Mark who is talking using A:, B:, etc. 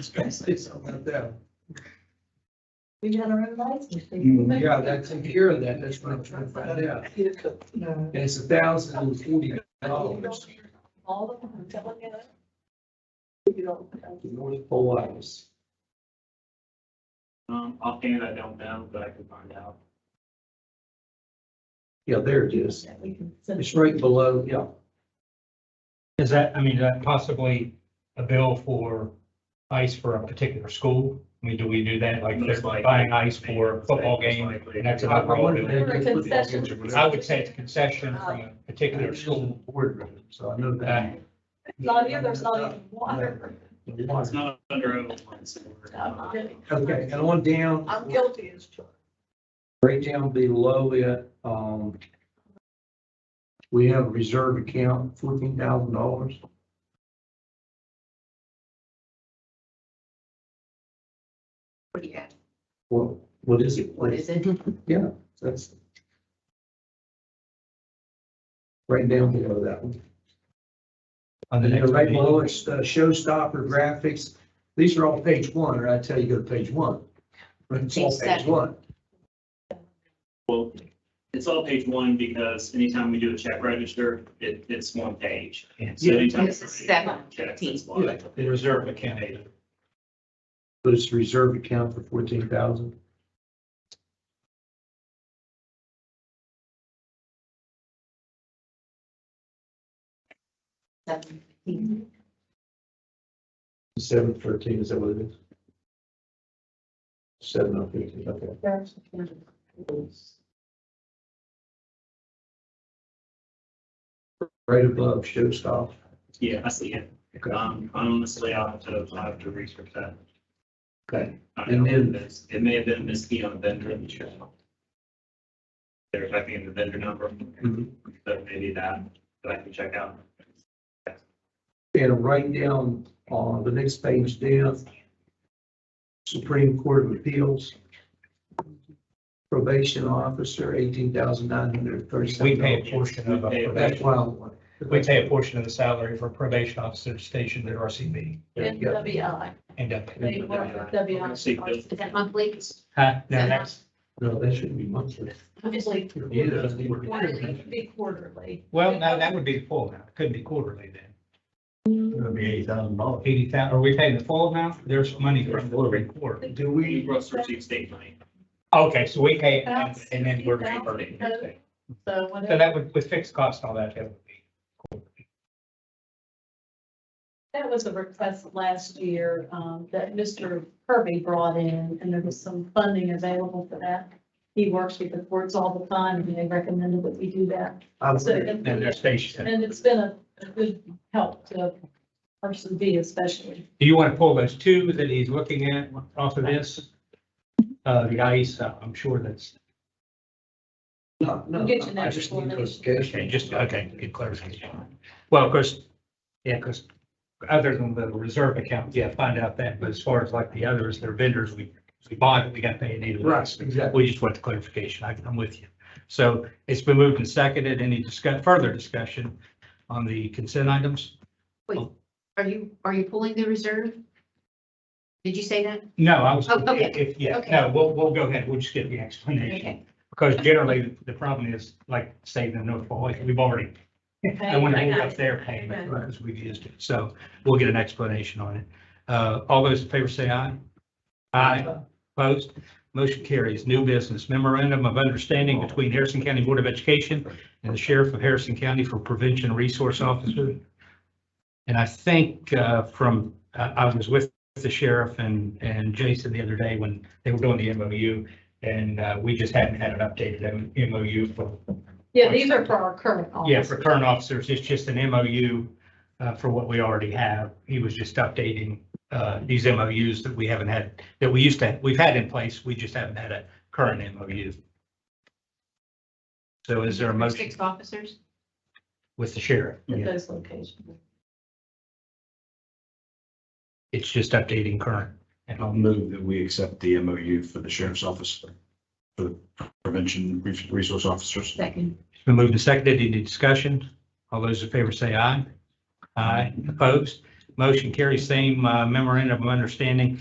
A: was gonna say something about that.
B: We got our own license.
A: Yeah, that's in here, and that, that's what I'm trying to find out.
B: No.
A: And it's a thousand and forty dollars,
B: All the, I'm telling you. You don't.
A: North Pole Lights.
C: Um, offhand, I don't know, but I can find out.
A: Yeah, there it is.
B: We can send
A: It's right below, yeah.
D: Is that, I mean, is that possibly a bill for ice for a particular school? I mean, do we do that, like
C: Most
D: they're
C: likely.
D: buying ice for a football game? and that's an overall bill?
B: For a concession.
D: I would say it's a concession from a particular school.
A: Boardroom, so I know that.
B: It's not here, there's not even water.
C: It's not under overtime, so we're-
A: Okay, and on down.
B: I'm guilty as charged.
A: Right down below it, um, we have a reserve account, fourteen thousand dollars.
E: What do you have?
A: What, what is it?
E: What is it?
B: Mm-hmm.
A: Yeah, that's. Right down below that one.
D: On the
A: And then
D: next
A: right
D: meeting.
A: below it's uh, showstopper graphics. These are all page one, or I tell you, go to page one. But it's all
E: Page
A: page
E: seven.
A: one.
C: Well, it's all page one because anytime we do a check register, it, it's one page. So
A: Yeah.
C: anytime
E: This is
C: somebody
E: seven,
C: checks,
E: 15.
C: it's one.
A: Yeah,
D: The reserve account.
A: but it's reserve account for fourteen thousand.
E: Seven fifteen.
A: Seven thirteen, is that what it is? Seven oh fifteen, okay. Right above showstopper.
C: Yeah, I see it.
A: Okay.
C: Um, honestly, I'll have to, I'll have to research that.
A: Okay.
C: I
A: And
C: don't know
A: then-
C: if it's- It may have been a miskey on vendor. I'm sure. They're typing in the vendor number,
D: Hmm.
A: Mhm.
C: so maybe that, that I can check out.
A: And right down on the next page down, Supreme Court of Appeals. Probation officer, eighteen thousand nine hundred
D: We
A: thirty-seven
D: pay a
A: dollars.
D: portion of a
C: We pay-
A: That's
D: probation,
A: why I want.
D: we pay a portion of the salary for probation officers stationed at RCB
B: NWI.
D: and up.
B: They work with WI.
C: See, those-
E: Is that monthly?
D: Huh? Now, that's,
A: No, that shouldn't be monthly.
B: Obviously,
A: Yeah, that's the word.
B: quarterly, it'd be quarterly.
D: well, no, that would be the full amount. It Couldn't be quarterly then.
A: It would be eighty thousand dollars.
D: Eighty thousand, are we paying the full amount? There's money from the quarter.
A: Do
C: We
A: we,
C: gross receive state money.
D: Okay, so we pay and and then we're reimbursed.
B: So
D: So
B: whatever,
D: that would, with fixed costs and all that, that would be.
B: that was a request last year, um, that Mr. Kirby brought in, and there was some funding available for that. He works with the courts all the time, and they recommended that we do that.
A: I'm,
B: So,
D: And they're stationed.
B: and it's been a, a good help to person B especially.
D: Do you want to pull those two that he's looking at off of this? Uh, the ICE, uh, I'm sure that's,
A: no, no,
B: We'll get you
A: I
B: that
A: just need
B: information.
D: okay,
A: clarification.
D: just, okay, good clarification. Well, of course, yeah, because other than the reserve account, yeah, find out that, but as far as like the others, they're vendors, we, we bought it, we got paid either. way.
A: Right, exactly.
D: We just want the clarification. I- I'm with you. So it's been moved and seconded. Any discuss, further discussion on the consent items?
E: Are you, are you pulling the reserve? Did you say that?
D: No, I was,
E: Oh, okay.
D: if, yeah,
E: Okay.
D: no, we'll, we'll go ahead. We'll just get the explanation.
E: Okay.
D: Because generally, the problem is, like, say, the North Pole, like, we've already, I want to
B: Hey,
D: hold
B: I-
D: up their payment because we've used it. So we'll get an explanation on it. Uh, all those in favor say aye. Aye. Opposed? Motion carries. New business memorandum of understanding between Harrison County Board of Education and the Sheriff of Harrison County for Prevention Resource Officer. And I think uh, from, I I was with the sheriff and, and Jason the other day when they were doing the MOU. And uh, we just hadn't had an updated MOU for
B: Yeah, these are for our current
D: yeah,
B: office.
D: for current officers, it's just an MOU uh, for what we already have. He was just updating uh, these MOUs that we haven't had, that we used to, we've had in place, we just haven't had a current MOU. So is there a motion
E: Six officers?
D: with the sheriff?
B: At those locations.
D: It's just updating current. And
F: I'll
D: I'll-
F: move that we accept the MOU for the sheriff's office for the prevention res- resource officers.
E: Second.
D: It's been moved and seconded. Any discussion? All those in favor say aye. Aye. Opposed? Motion carries. Same uh, memorandum of understanding